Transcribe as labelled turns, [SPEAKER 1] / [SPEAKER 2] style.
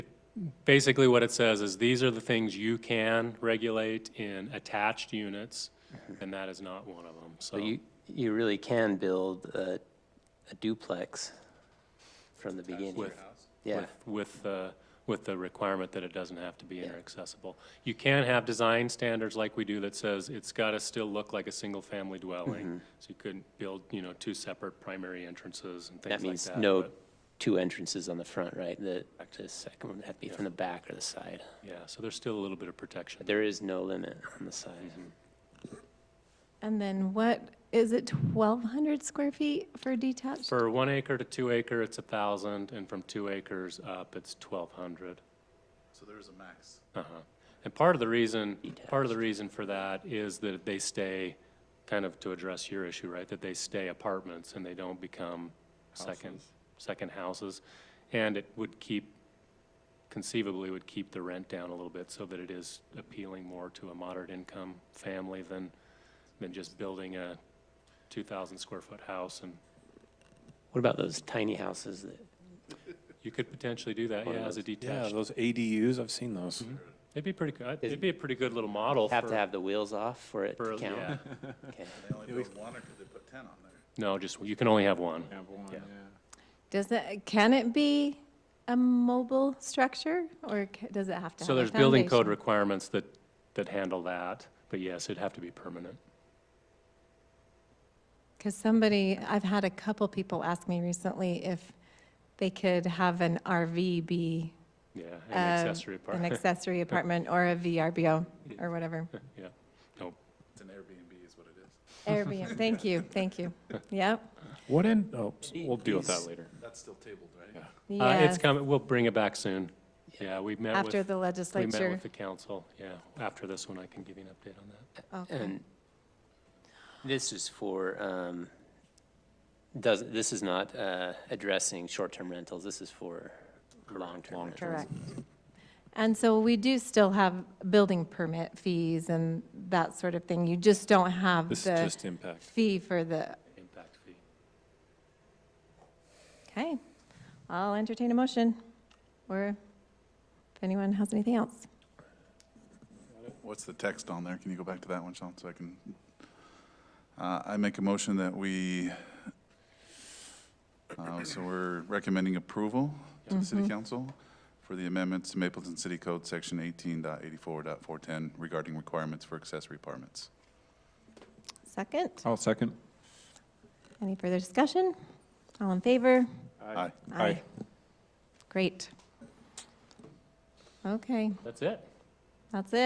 [SPEAKER 1] basically what it says is these are the things you can regulate in attached units, and that is not one of them, so.
[SPEAKER 2] So Mm-hmm. you, you really can build a a duplex from the beginning.
[SPEAKER 1] With-
[SPEAKER 2] Yeah,
[SPEAKER 1] with- With, the- with the requirement that it doesn't have to be inaccessible. You can have design standards like we do that says it's got to still look like a single-family
[SPEAKER 2] Mm-hmm.
[SPEAKER 1] dwelling. So you couldn't build, you know, two separate primary entrances and things like
[SPEAKER 2] that
[SPEAKER 1] that.
[SPEAKER 2] means no
[SPEAKER 1] but-
[SPEAKER 2] two entrances on the front, right? The, the second one would have to be from the back or the side.
[SPEAKER 1] Yeah, so there's still a little bit of protection.
[SPEAKER 2] But there is no limit on the side.
[SPEAKER 1] Mm-hmm.
[SPEAKER 3] And then what, is it 1,200 square feet for detached?
[SPEAKER 1] For one acre to two acre, it's a thousand, and from two acres up, it's twelve hundred.
[SPEAKER 4] So there is a max.
[SPEAKER 1] Uh-huh. And part of the reason, part of the reason for that is that they stay, kind of to address your issue, right? That they stay apartments and they don't become second, second houses. And it would keep, conceivably would keep the rent down a little bit so that it is appealing more to a moderate income family than, than just building a two thousand square foot house. And
[SPEAKER 2] What about those tiny houses that,
[SPEAKER 1] you could potentially do that, yeah, as a
[SPEAKER 5] Yeah,
[SPEAKER 1] detached.
[SPEAKER 5] those ADUs, I've seen those.
[SPEAKER 1] It'd be pretty, good. uh, it'd be a pretty good little model
[SPEAKER 2] have to
[SPEAKER 1] for,
[SPEAKER 2] have the wheels off for it
[SPEAKER 1] for,
[SPEAKER 2] to
[SPEAKER 1] yeah.
[SPEAKER 2] count? Okay.
[SPEAKER 4] They only build one, or could they put 10 on there?
[SPEAKER 1] No, just, you can only have one.
[SPEAKER 5] Have one, yeah.
[SPEAKER 3] Does it, can it be a mobile structure, or ca- does it have to have a
[SPEAKER 1] So there's building code
[SPEAKER 3] foundation?
[SPEAKER 1] requirements that, that handle that, but yes, it'd have to be permanent.
[SPEAKER 3] Because somebody, I've had a couple people ask me recently if they could have an RV be
[SPEAKER 1] Yeah,
[SPEAKER 3] um,
[SPEAKER 1] an accessory
[SPEAKER 3] An
[SPEAKER 1] apartment,
[SPEAKER 3] accessory apartment or a VRBO or whatever.
[SPEAKER 1] yeah. No,
[SPEAKER 4] It's an Airbnb is what it is.
[SPEAKER 3] Airbnb, thank you, thank you.
[SPEAKER 1] Uh,
[SPEAKER 3] Yep.
[SPEAKER 5] What in, oh, we'll deal with that
[SPEAKER 2] These-
[SPEAKER 5] later.
[SPEAKER 4] That's still tabled, right?
[SPEAKER 1] uh, it's
[SPEAKER 3] Yes,
[SPEAKER 1] coming, we'll bring it back soon. Yeah, we met
[SPEAKER 3] after
[SPEAKER 1] with,
[SPEAKER 3] the
[SPEAKER 1] we met
[SPEAKER 3] legislature.
[SPEAKER 1] with the council, yeah. After this one, I can give you an update on that.
[SPEAKER 3] Okay.
[SPEAKER 2] And this is for, um, does, this is not, uh, addressing short-term rentals, this is for long-term rentals.
[SPEAKER 3] Correct. And so we do still have building permit fees and that sort of thing. You just don't have
[SPEAKER 5] This is
[SPEAKER 3] the
[SPEAKER 5] just impact.
[SPEAKER 3] fee for the,
[SPEAKER 1] Impact fee.
[SPEAKER 3] okay. I'll entertain a motion, or if anyone has anything else.
[SPEAKER 4] What's the text on there? Can you go back to that one, Sean, so I can? Uh, I make a motion that we, uh, so we're recommending approval to the city council for the amendments to Mapleton City Code, Section 18.84.410 regarding requirements for accessory apartments.
[SPEAKER 3] Second,
[SPEAKER 5] I'll second.
[SPEAKER 3] any further discussion? All in favor?
[SPEAKER 4] Aye.
[SPEAKER 5] Aye.
[SPEAKER 3] Great. Okay,
[SPEAKER 1] That's it.
[SPEAKER 3] that's it.